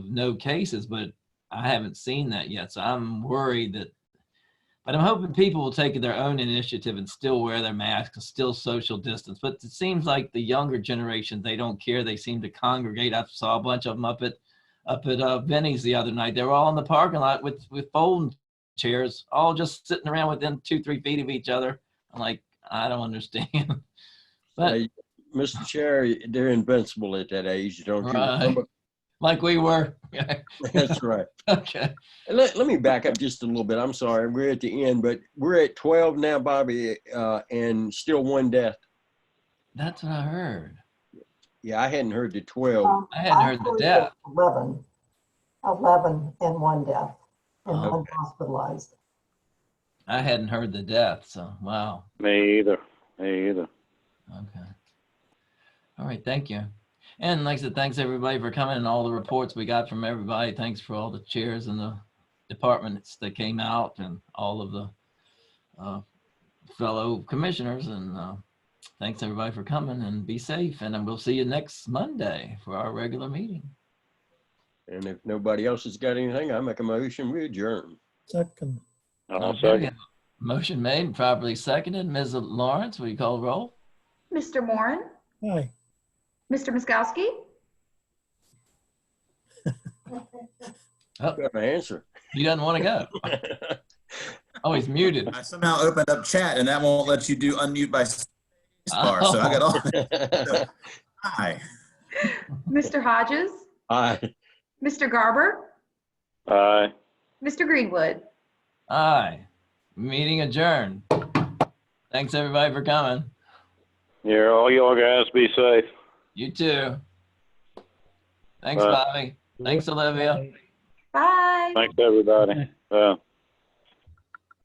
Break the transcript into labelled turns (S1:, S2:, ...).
S1: no cases, but I haven't seen that yet. So I'm worried that, but I'm hoping people will take their own initiative and still wear their masks and still social distance. But it seems like the younger generation, they don't care. They seem to congregate. I saw a bunch of them up at, up at uh, Benny's the other night. They were all in the parking lot with, with folding chairs, all just sitting around within two, three feet of each other. I'm like, I don't understand. but
S2: Hey, Mr. Chair, they're invincible at that age, don't you?
S1: Right.
S2: remember?
S1: like we were.
S2: That's right.
S1: okay.
S2: And Let, let me back up just a little bit. I'm sorry, we're at the end, but we're at 12 now, Bobby, uh, and still one death.
S1: That's what I heard.
S2: Yeah, I hadn't heard the 12.
S3: Um,
S1: I hadn't
S3: I
S1: heard the
S3: heard
S1: death.
S3: 11, 11 and one death
S1: Oh,
S3: and one
S2: Okay.
S3: hospitalized.
S1: I hadn't heard the death. So, wow.
S4: Me either. Me either.
S1: Okay. All right, thank you. And like I said, thanks everybody for coming and all the reports we got from everybody. Thanks for all the chairs and the departments that came out and all of the uh, fellow commissioners and uh, thanks everybody for coming and be safe. And then we'll see you next Monday for our regular meeting.
S2: And if nobody else has got anything, I make a motion, we adjourn.
S5: Second,
S4: I'll
S1: Okay.
S4: second.
S1: Motion made, and properly seconded. Ms. Lawrence, will you call the roll?
S6: Mr. Moran,
S5: aye.
S6: Mr. Miskowski,
S2: Got an answer.
S1: He doesn't want to go. Oh, he's muted.
S7: I somehow opened up chat and that won't let you do unmute by spacebar. So I got all hi.
S6: Mr. Hodges,
S2: Aye.
S6: Mr. Garber,
S4: Aye.
S6: Mr. Greenwood.
S1: Aye. Meeting adjourned. Thanks, everybody, for coming.
S4: Yeah, all y'all guys be safe.
S1: You too. Thanks,
S4: Bye.
S1: Bobby. Thanks, Olivia.
S6: Bye.
S4: Thanks, everybody. Uh,